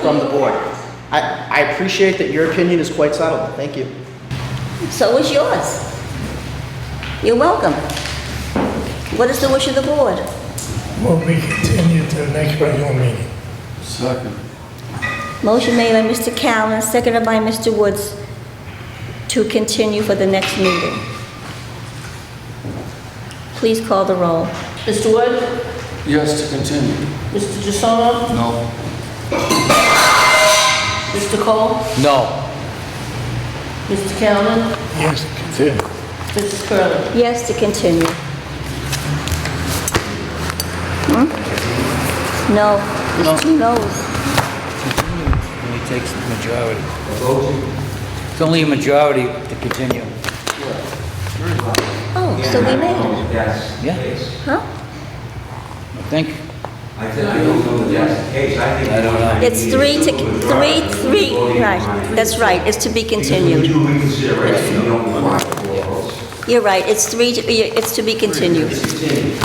from the board. I, I appreciate that your opinion is quite settled. Thank you. So is yours. You're welcome. What is the wish of the board? Will be continued to the next regular meeting. Second. Motion made by Mr. Callen, seconded by Mr. Woods to continue for the next meeting. Please call the roll. Mr. Wood? Yes, to continue. Mr. DeSona? No. Mr. Cole? No. Mr. Callen? Yes, continue. Mrs. Curley? Yes, to continue. Hmm? No. No. Only takes the majority. It's only a majority to continue. Oh, so we made it, That's the Yeah. case. huh? I think I think I don't know if that's the case, I think. I don't know. It's three to, three, three, right, that's right, it's to be We continued. do reconsideration, we don't want four votes. You're right, it's three, to- it's to be continued. It's continued.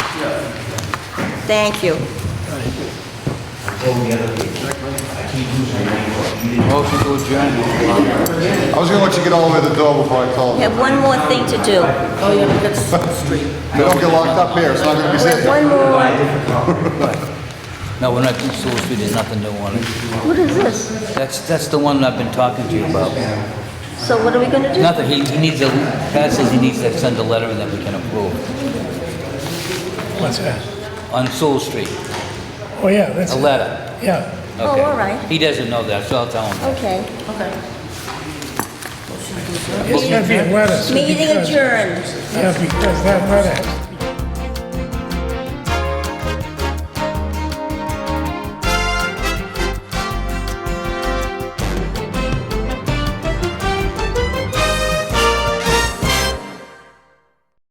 Thank you. I told the other people, I keep losing my vote. You didn't motion to adjourn. I was gonna let you get all the way to the door before I called. We have one more thing to do. Oh, yeah, that's the street. We don't get locked up here, it's not gonna be We have safe. one more, No, we're not, Sewell Street, there's nothing new on it. what is this? That's, that's the one I've been talking to you about. So what are we gonna do? Nothing, he, he needs a, Pat says he needs to send a letter and then we can approve. What's that? On Sewell Street, Oh, yeah, that's, a letter. yeah. Oh, Okay. all right, He doesn't know that, so I'll tell him. okay. Okay. It's gotta be a letter. so Meeting because- adjourned. Yeah, because that letter